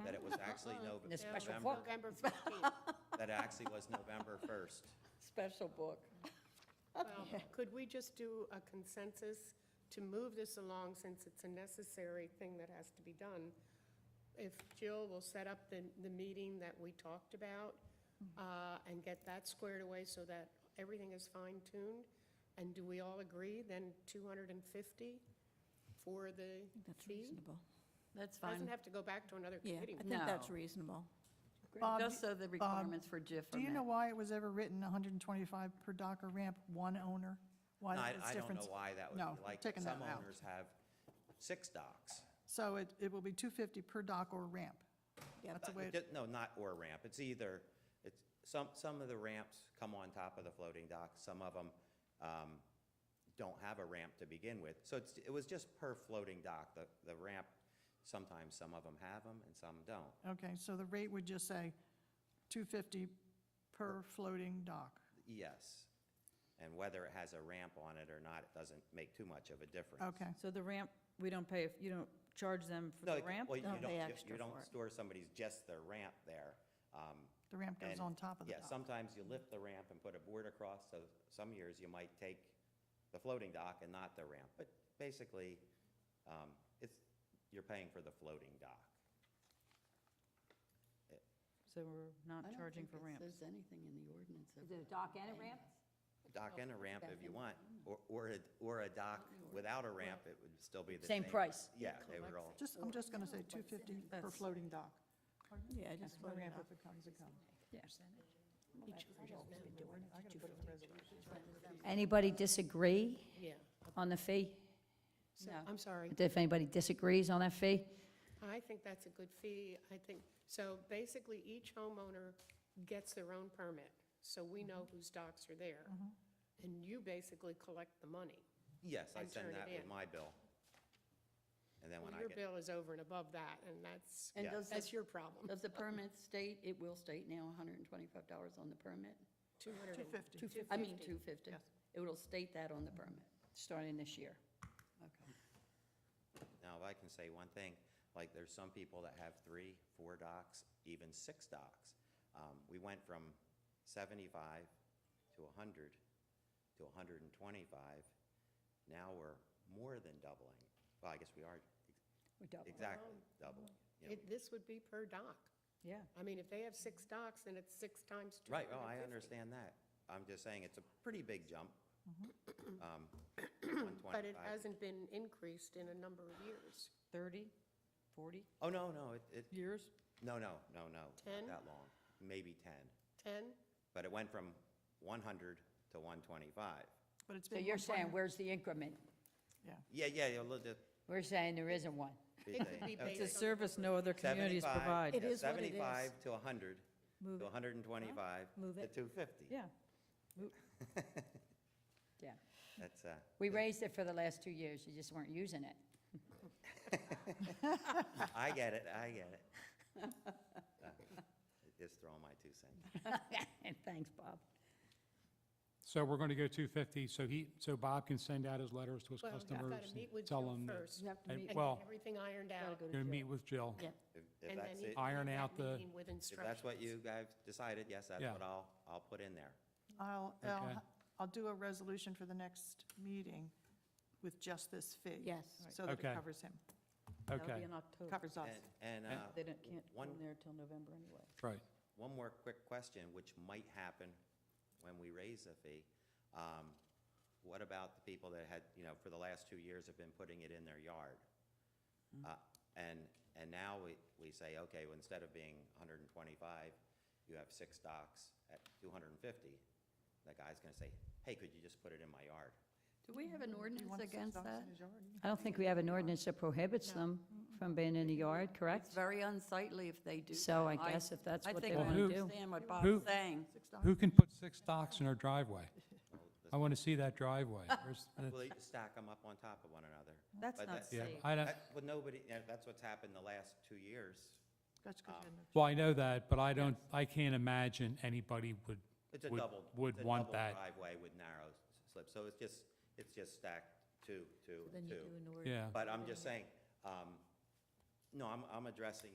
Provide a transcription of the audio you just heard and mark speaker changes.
Speaker 1: actually
Speaker 2: Oh,
Speaker 3: In
Speaker 1: November,
Speaker 3: a special book.
Speaker 1: November-
Speaker 4: November 15th.
Speaker 1: that actually was November first.
Speaker 3: special book.
Speaker 4: Well, Could we just do a consensus to move this along, since it's a necessary thing that has to be done? If Jill will set up the, the meeting that we talked about, uh, and get that squared away so that everything is fine-tuned? And do we all agree, then 250 for the
Speaker 5: That's
Speaker 4: fee?
Speaker 5: reasonable.
Speaker 6: That's
Speaker 4: Doesn't
Speaker 6: fine.
Speaker 4: have to go back to another
Speaker 5: Yeah,
Speaker 4: committee.
Speaker 5: I think that's
Speaker 6: No.
Speaker 5: reasonable.
Speaker 2: Bob,
Speaker 6: Just so the requirements for JIF
Speaker 2: Do
Speaker 6: are
Speaker 2: you know
Speaker 6: met.
Speaker 2: why it was ever written 125 per dock or ramp, one owner? Why
Speaker 1: I,
Speaker 2: that was
Speaker 1: I don't
Speaker 2: different?
Speaker 1: know why that would
Speaker 2: No,
Speaker 1: be like, that.
Speaker 2: taking
Speaker 1: some
Speaker 2: that out.
Speaker 1: owners have six docks.
Speaker 2: So it, it will be 250 per dock or ramp. That's the way, it-
Speaker 1: Ju- Uh, No, not or ramp, it's either, it's, some, some of the ramps come on top of the floating dock, some of them, um, don't have a ramp to begin with. So it's, it was just per floating dock, the, the ramp, sometimes some of them have them and some don't.
Speaker 2: okay, so the rate would just say 250 per floating dock.
Speaker 1: Yes. And whether it has a ramp on it or not, it doesn't make too much of a difference.
Speaker 2: Okay,
Speaker 6: So the ramp, we don't pay, you don't charge them for
Speaker 1: No,
Speaker 6: the
Speaker 1: it-
Speaker 6: ramp?
Speaker 1: Well, you
Speaker 5: No,
Speaker 1: don't,
Speaker 5: they
Speaker 1: you- you
Speaker 5: extra for
Speaker 1: don't
Speaker 5: it.
Speaker 1: store somebody's, just their ramp there. Um,
Speaker 2: the ramp goes
Speaker 1: and,
Speaker 2: on top of the
Speaker 1: Yeah,
Speaker 2: dock.
Speaker 1: sometimes you lift the ramp and put a board across, so some years you might take the floating dock and not the ramp. But basically, um, it's, you're paying for the floating dock.
Speaker 6: So we're not charging for ramps.
Speaker 7: There's anything in the ordinance. of-
Speaker 3: The dock and a ramp?
Speaker 1: Dock and a ramp if you want, or, or, a- or a dock without a ramp, it would still be the same.
Speaker 3: Same price.
Speaker 1: Yeah, they would all,
Speaker 2: Just, I'm just going to say 250 per
Speaker 6: That's-
Speaker 2: floating dock.
Speaker 5: Yeah, I just
Speaker 2: The
Speaker 5: voted
Speaker 2: ramp,
Speaker 5: off.
Speaker 2: if it comes, it comes.
Speaker 3: Anybody disagree
Speaker 4: Yeah.
Speaker 3: on the fee?
Speaker 4: So,
Speaker 6: No.
Speaker 4: I'm sorry.
Speaker 3: If anybody disagrees on that fee?
Speaker 4: I think that's a good fee. I think, so basically, each homeowner gets their own permit, so we know
Speaker 7: Mm-hmm.
Speaker 4: whose docks are there. And you basically collect the money.
Speaker 1: yes, I
Speaker 4: And
Speaker 1: send
Speaker 4: turn it
Speaker 1: that with
Speaker 4: in.
Speaker 1: my bill. And then when I
Speaker 4: Your
Speaker 1: get,
Speaker 4: bill is over and above that, and that's,
Speaker 7: And
Speaker 1: Yeah.
Speaker 7: does,
Speaker 4: that's
Speaker 7: the-
Speaker 4: your problem.
Speaker 7: does the permit state, it will state now $125 on the permit?
Speaker 4: 200 and-
Speaker 2: 250.
Speaker 7: I mean, 250.
Speaker 2: Yes.
Speaker 7: It will state that on the permit.
Speaker 6: Starting this year.
Speaker 7: Okay.
Speaker 1: now if I can say one thing, like there's some people that have three, four docks, even six docks. Um, We went from seventy-five to a hundred to a hundred and twenty-five. Now we're more than doubling. Well, I guess we are
Speaker 3: We double.
Speaker 1: exactly doubling. you know.
Speaker 4: It- This would be per dock.
Speaker 6: Yeah.
Speaker 4: I mean, if they have six docks, then it's six times 250.
Speaker 1: Right, oh, I understand that. I'm just saying it's a pretty big jump. Um,
Speaker 4: Mm-hmm. But it
Speaker 1: 125.
Speaker 4: hasn't been increased in a number of years.
Speaker 6: 30, 40
Speaker 1: Oh, no, no, it, it,
Speaker 6: years?
Speaker 1: no, no, no, no, not
Speaker 4: Ten?
Speaker 1: that long, maybe ten.
Speaker 4: 10?
Speaker 1: But it went from one hundred to one twenty-five.
Speaker 2: But it's
Speaker 3: So
Speaker 2: been
Speaker 3: you're
Speaker 2: 120
Speaker 3: saying, where's the increment?
Speaker 1: Yeah, yeah, a little bit.
Speaker 3: We're saying there isn't one.
Speaker 1: big
Speaker 4: It could
Speaker 1: thing.
Speaker 4: be
Speaker 1: Okay,
Speaker 4: based
Speaker 6: It's a
Speaker 4: on-
Speaker 6: service no other communities
Speaker 1: 75
Speaker 6: provide.
Speaker 1: yeah,
Speaker 5: is what it is.
Speaker 1: Seventy-five to a hundred,
Speaker 5: Move
Speaker 1: to
Speaker 5: it.
Speaker 1: hundred and twenty-five,
Speaker 5: Move
Speaker 1: to
Speaker 5: it.
Speaker 1: two fifty.
Speaker 6: Yeah.
Speaker 3: Yeah.
Speaker 1: That's, uh,
Speaker 3: We raised it for the last two years, you just weren't using it.
Speaker 1: I get it, I get it. Uh, Just throwing my two cents.
Speaker 3: Thanks, Bob.
Speaker 8: So we're going to go 250, so he, so Bob can send out his letters to his
Speaker 4: Well,
Speaker 8: customers.
Speaker 4: I've got to
Speaker 8: and
Speaker 4: meet with
Speaker 8: tell
Speaker 4: Jill
Speaker 8: them that-
Speaker 4: first
Speaker 5: You have to
Speaker 8: and-
Speaker 5: meet,
Speaker 4: and
Speaker 8: Well,
Speaker 4: get everything ironed out.
Speaker 8: Going to meet with Jill.
Speaker 1: If- If
Speaker 4: and
Speaker 1: that's
Speaker 4: then
Speaker 1: it,
Speaker 4: you
Speaker 8: Iron
Speaker 4: have
Speaker 8: out
Speaker 4: that
Speaker 8: the-
Speaker 4: meeting With
Speaker 1: if that's what
Speaker 4: instructions.
Speaker 1: you guys decided, yes, that's
Speaker 8: Yeah.
Speaker 1: what I'll, I'll put in there.
Speaker 2: I'll, I'll,
Speaker 8: Okay.
Speaker 2: ha- I'll do a resolution for the next meeting with just this fee.
Speaker 5: yes.
Speaker 2: So that it
Speaker 8: Okay.
Speaker 2: covers him,
Speaker 6: That'll
Speaker 8: Okay,
Speaker 6: be in October.
Speaker 2: covers us.
Speaker 1: And, and,
Speaker 8: And-
Speaker 1: uh,
Speaker 6: They don't- can't go
Speaker 1: one-
Speaker 6: in there till November anyway.
Speaker 8: right.
Speaker 1: One more quick question, which might happen when we raise the fee. Um, What about the people that had, you know, for the last two years have been putting it in their yard?
Speaker 6: Mm-hmm.
Speaker 1: Uh, And, and now we, we say, okay, well, instead of being 125, you have six docks at 250. That guy's gonna say, hey, could you just put it in my yard?
Speaker 7: Do we have an
Speaker 2: You
Speaker 7: ordinance
Speaker 2: want six
Speaker 7: against
Speaker 2: dogs
Speaker 7: that?
Speaker 2: in his yard?
Speaker 3: I don't think we have an ordinance that prohibits them from being in the yard,
Speaker 7: It's
Speaker 3: correct?
Speaker 7: very unsightly if they do.
Speaker 3: So
Speaker 7: that.
Speaker 3: I guess if that's
Speaker 7: I
Speaker 3: what
Speaker 7: think
Speaker 3: they
Speaker 8: Well,
Speaker 7: I
Speaker 3: want
Speaker 8: who-
Speaker 3: to do.
Speaker 7: understand what
Speaker 8: Who-
Speaker 7: Bob's saying.
Speaker 2: Six dogs.
Speaker 8: Who can put six docks in their driveway? I want to see that driveway. Where's the-
Speaker 1: Well, you stack them up on top of one another.
Speaker 6: That's
Speaker 1: But
Speaker 6: not
Speaker 1: that-
Speaker 8: Yeah,
Speaker 6: safe.
Speaker 8: I don't,
Speaker 1: That- Well, nobody, yeah, that's what's happened the last two years.
Speaker 2: That's good, isn't it?
Speaker 8: well, I know that, but I don't, I can't imagine anybody would,
Speaker 1: It's a
Speaker 8: would,
Speaker 1: double.
Speaker 8: would
Speaker 1: it's a
Speaker 8: want
Speaker 1: double
Speaker 8: that.
Speaker 1: Driveway with narrow s- slip, so it's just, it's just stacked two, two, and two.
Speaker 8: Yeah.
Speaker 1: But I'm just saying, um, no, I'm, I'm addressing